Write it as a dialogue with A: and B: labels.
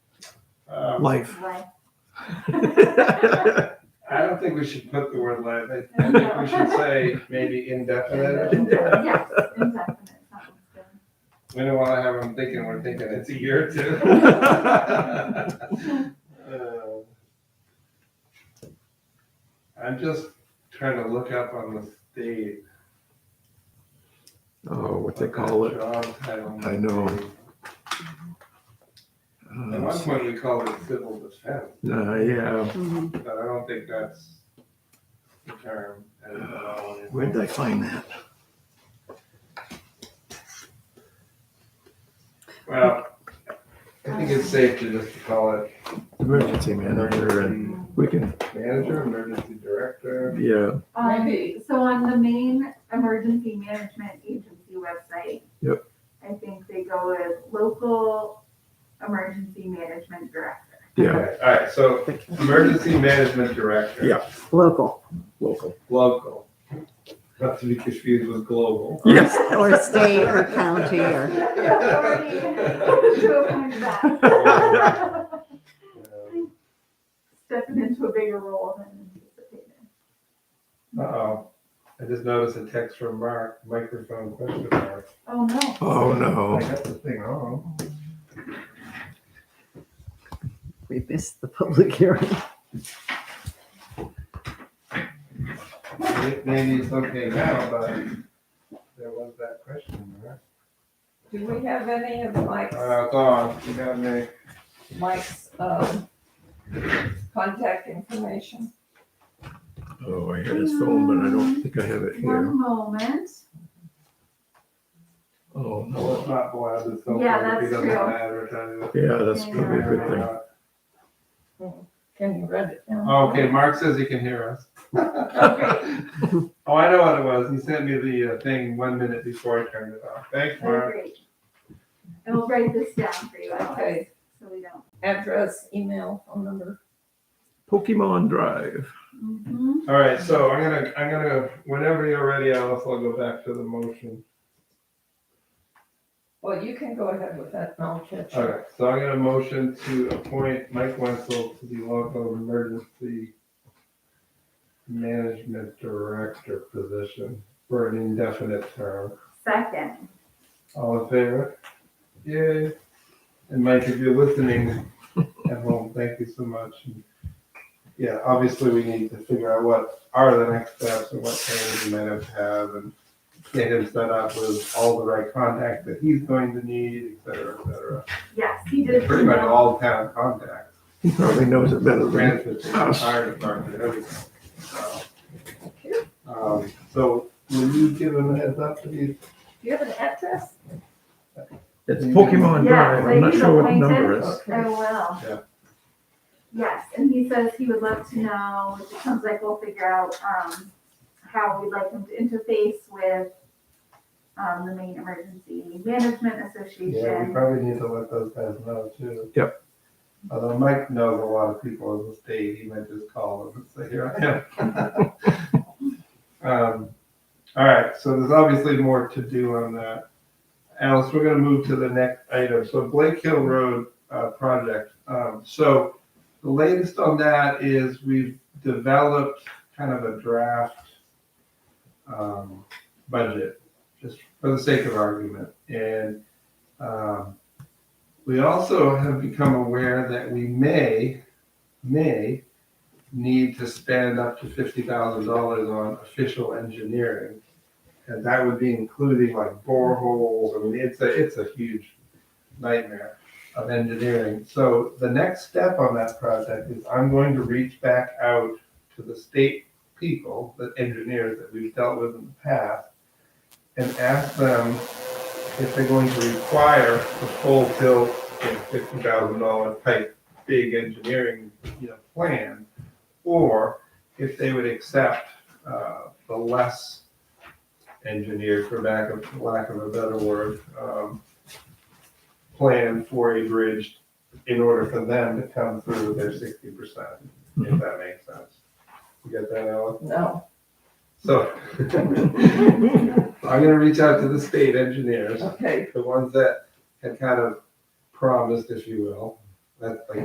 A: Um,
B: about life. Oh,
C: Right.
A: I don't think we should put the word life. I I think we should say maybe indefinite or something.
C: Yes, exactly. That was good.
A: We don't want to have them thinking we're thinking it's a year or two. Uh, I'm just trying to look up on the state.
B: oh, what they
A: what that
B: call it.
A: Job title.
B: I know.
A: might be. At one
B: Uh,
A: point, we called it civil defense,
B: uh, yeah.
A: but I don't think that's the term. at all.
B: Where did I find that?
A: Well, I think it's safe to just call it
B: Emergency manager. And
A: emergency
B: we can,
A: manager, emergency director.
B: yeah.
C: Um,
D: Maybe.
C: So on the main emergency management agency website.
B: Yep.
C: I think they go with local emergency management director.
B: Yeah.
A: Okay, All right, so emergency management director.
B: Yeah.
D: Local
B: Local.
A: Local. Not to be confused with global.
B: Yes.
D: or state or county or,
C: Already to appoint that.
A: Uh,
B: Oh,
C: Stepping into a bigger role than anticipated.
A: Uh-oh, I just noticed a text from Mark, microphone question mark.
C: Oh, no.
B: Oh,
A: I
B: no.
A: got the thing wrong.
D: we missed the public hearing.
A: May- Maybe it's okay now, but there was that question mark.
E: Do we have any of Mike's,
A: Uh, gone, you got me.
E: Mike's, um, contact information?
B: Oh, I had his phone, but I don't think I have it here.
C: One moment.
B: Oh,
A: Well, it's
B: no.
A: not blasted, so
C: Yeah,
A: far, if he
C: that's
A: doesn't
C: true.
A: advertise it.
B: Yeah, that's probably a good thing.
E: Can you read it?
A: Oh, Okay, Mark says he can hear us. Oh, I know what it was. He sent me the uh, thing one minute before I turned it off. Thanks,
C: Oh,
A: Mark.
C: great. And we'll write this down for you, Alex,
E: Okay,
C: so we don't.
E: address, email, phone number.
B: Pokemon Drive.
C: Mhm.
A: All right, so I'm gonna, I'm gonna, whenever you're ready, Alice, I'll go back to the motion.
E: Well, you can go ahead with that and I'll catch
A: All
E: up.
A: right, so I'm gonna motion to appoint Mike Wenzel to the local emergency management director position for an indefinite term.
C: Second.
A: All in favor? Yay. And Mike, if you're listening at home, thank you so much. And, Yeah, obviously we need to figure out what are the next steps and what training we might have to have and get him set up with all the right contacts that he's going to need, et cetera, et cetera.
C: Yes, he did.
A: Pretty much
C: email.
A: all town contacts.
B: He probably knows it better than
A: Transit, fire department, everything. So, Um, so will you give him a heads up to these?
E: Do you have an address?
B: It's Pokemon Drive. I'm not sure what number it is.
C: I
E: Okay.
C: will.
A: Yeah.
C: Yes, and he says he would love to know, it sounds like we'll figure out, um, how we'd like him to interface with, um, the main emergency management
A: Yeah, we
C: association.
A: probably need to let those guys know too.
B: Yep.
A: Although Mike knows a lot of people in the state, he might just call them and say, here I am. Um, All right, so there's obviously more to do on that. Alice, we're gonna move to the next item. So Blake Hill Road, uh, project. Um, so the latest on that is we've developed kind of a draft, um, budget, just for the sake of argument. And um, We also have become aware that we may, may need to spend up to fifty thousand dollars on official engineering. And that would be including like boreholes, I mean, it's a, it's a huge nightmare of engineering. So the next step on that project is I'm going to reach back out to the state people, the engineers that we've dealt with in the past, and ask them if they're going to require the full tilt, fifty thousand dollar type big engineering, you know, plan, or if they would accept uh, the less engineered, for lack of lack of a better word, um, plan for a bridge in order for them to come through with their sixty percent, if that makes sense. You get that, Alan?
E: No.
A: So I'm gonna reach out to the state engineers
E: Okay.
A: the ones that had kind of promised, if you will, that like